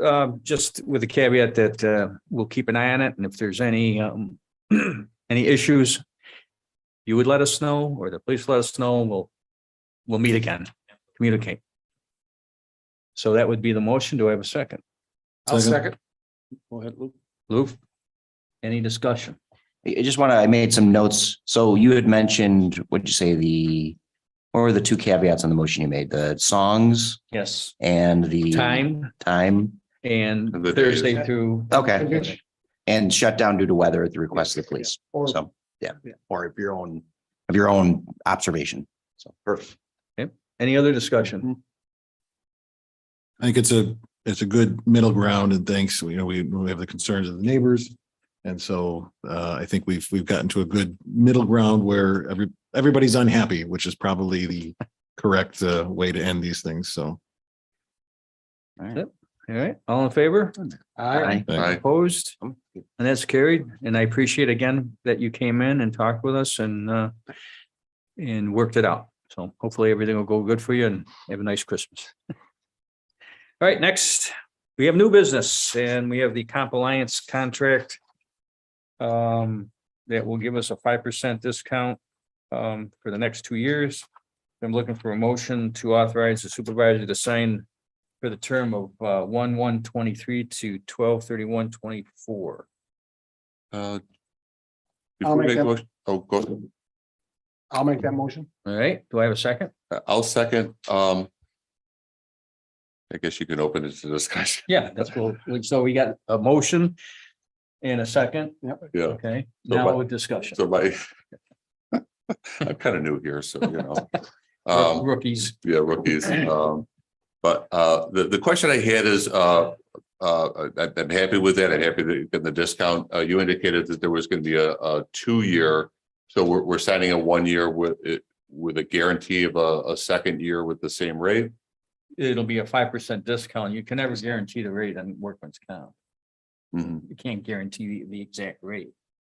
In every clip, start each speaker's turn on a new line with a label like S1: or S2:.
S1: um, just with the caveat that, uh, we'll keep an eye on it and if there's any, um, any issues, you would let us know or the police let us know and we'll, we'll meet again, communicate. So that would be the motion. Do I have a second?
S2: I'll
S3: Second.
S2: second.
S3: Go ahead, Luke.
S1: Lou? Any discussion?
S4: I I just want to, I made some notes. So you had mentioned, what'd you say, the, what were the two caveats on the motion you made? The songs
S1: Yes.
S4: and the
S1: Time
S4: Time.
S1: and
S2: And the days.
S1: Thursday through,
S4: Okay. And shut down due to weather at the request of the police.
S3: Or-
S4: So, yeah, or of your own, of your own observation. So perfect.
S1: any other
S2: Mm-hmm.
S1: discussion?
S2: I think it's a, it's a good middle ground and thanks, you know, we, we have the concerns of the neighbors. And so uh, I think we've, we've gotten to a good middle ground where every, everybody's unhappy, which is probably the correct uh, way to end these things. So.
S1: All right, all in favor?
S4: Aye.
S2: thank
S1: Opposed? And that's carried. And I appreciate again that you came in and talked with us and uh. And worked it out. So hopefully everything will go good for you and have a nice Christmas. All right, next, we have new business and we have the comp alliance contract. Um, that will give us a five percent discount um for the next two years. I'm looking for a motion to authorize the supervisor to sign for the term of uh one one twenty-three to twelve thirty-one twenty-four.
S5: Uh,
S3: I'll
S5: Before
S3: make
S5: we
S3: that-
S5: go, oh, go,
S3: I'll make that motion.
S1: All right, do I have a second?
S5: uh, I'll second, um. I guess you can open it to discussion.
S1: Yeah, that's cool. So we got a motion and a second,
S5: Yeah,
S1: okay?
S5: So
S1: Now
S5: what-
S1: with discussion.
S5: so my. I'm kind of new here, so you know.
S1: Rook-
S5: Um,
S1: Rookies,
S5: yeah, rookies. Um, but, uh, the, the question I had is, uh, uh, I, I'm happy with that. I'm happy that you got the discount. Uh, you indicated that there was going to be a, a two-year. So we're, we're signing a one-year with, it with a guarantee of a, a second year with the same rate.
S1: it'll be a five percent discount. You can never guarantee the rate on workman's comp.
S5: Mhm.
S1: You can't guarantee the, the exact rate.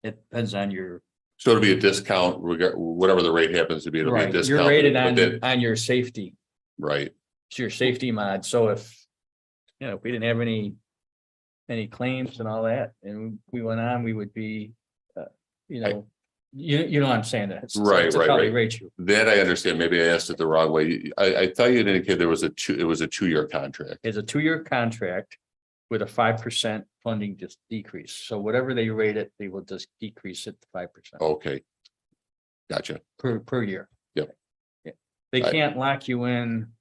S1: It depends on your,
S5: So it'll be a discount, rega- whatever the rate happens to be, it'll be a
S1: right,
S5: discount.
S1: you're rated on, on your safety,
S5: Right,
S1: it's your safety mod. So if, you know, if we didn't have any, any claims and all that, and we went on, we would be, uh, you
S5: I-
S1: know, you, you know what I'm saying? That's-
S5: Right,
S1: it's
S5: right,
S1: how they
S5: right.
S1: Rate you.
S5: that I understand, maybe I asked it the wrong way, I, I thought you indicated there was a two, it was a two-year contract.
S1: is a two-year contract with a five percent funding just decrease. So whatever they rate it, they will just decrease it to five percent
S5: Okay. Gotcha,
S1: per, per year.
S5: Yep.
S1: Yeah. They
S5: I-
S1: can't lock you in.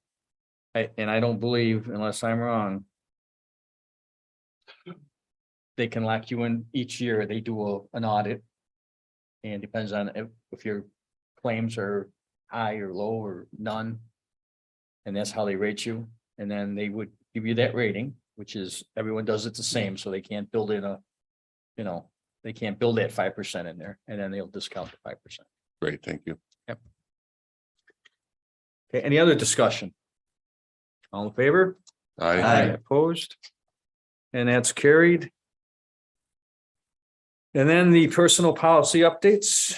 S1: I, and I don't believe, unless I'm wrong, they can lock you in each year. They do a- an audit. And it depends on if, if your claims are high or low or none. And that's how they rate you. And then they would give you that rating, which is everyone does it the same, so they can't build in a, you know, they can't build that five percent in there and then they'll discount the five percent.
S5: great, thank you.
S1: Okay, any other discussion? All in favor?
S5: I,
S1: Opposed? And that's carried. And then the personal policy updates.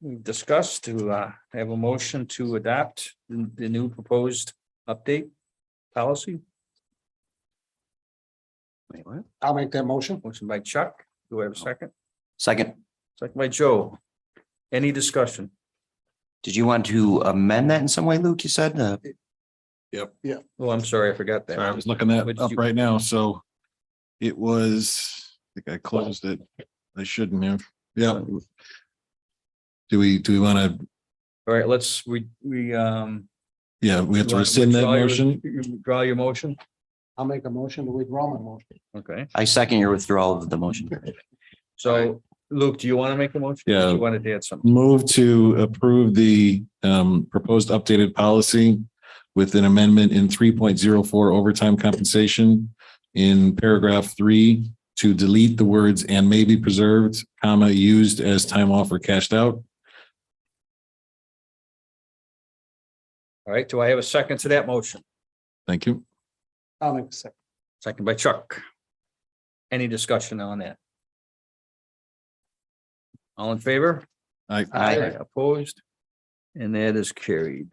S1: we discussed to uh, have a motion to adopt the the new proposed update policy.
S4: Wait, what?
S3: I'll make that motion.
S1: Motion by Chuck, do I have a second?
S4: Second,
S1: Second by Joe. Any discussion?
S4: did you want to amend that in some way, Luke? You said, uh,
S1: Oh, I'm sorry, I forgot
S2: Sorry, I was
S1: that.
S2: looking that
S1: Would
S2: up
S1: you-
S2: right now, so it was, I think I closed it. I shouldn't have, yeah. Do we, do we want to,
S1: All right, let's, we, we, um.
S2: yeah, we have to
S1: you wanna
S2: rescind that
S1: withdraw your-
S2: motion?
S1: you Draw your motion,
S3: I'll make a motion to withdraw my motion.
S1: okay.
S4: I second your withdrawal of the motion.
S1: So Luke, do you want to make a motion?
S2: Yeah.
S1: You wanted to add something?
S2: Move to approve the um proposed updated policy with an amendment in three point zero four overtime compensation in paragraph three to delete the words and may be preserved, comma, used as time off or cashed out.
S1: All right, do I have a second to that motion?
S2: Thank you.
S3: I'll make a second.
S1: Second by Chuck. Any discussion on that? All in favor?
S2: I,
S4: Aye.
S1: Opposed? And that is carried.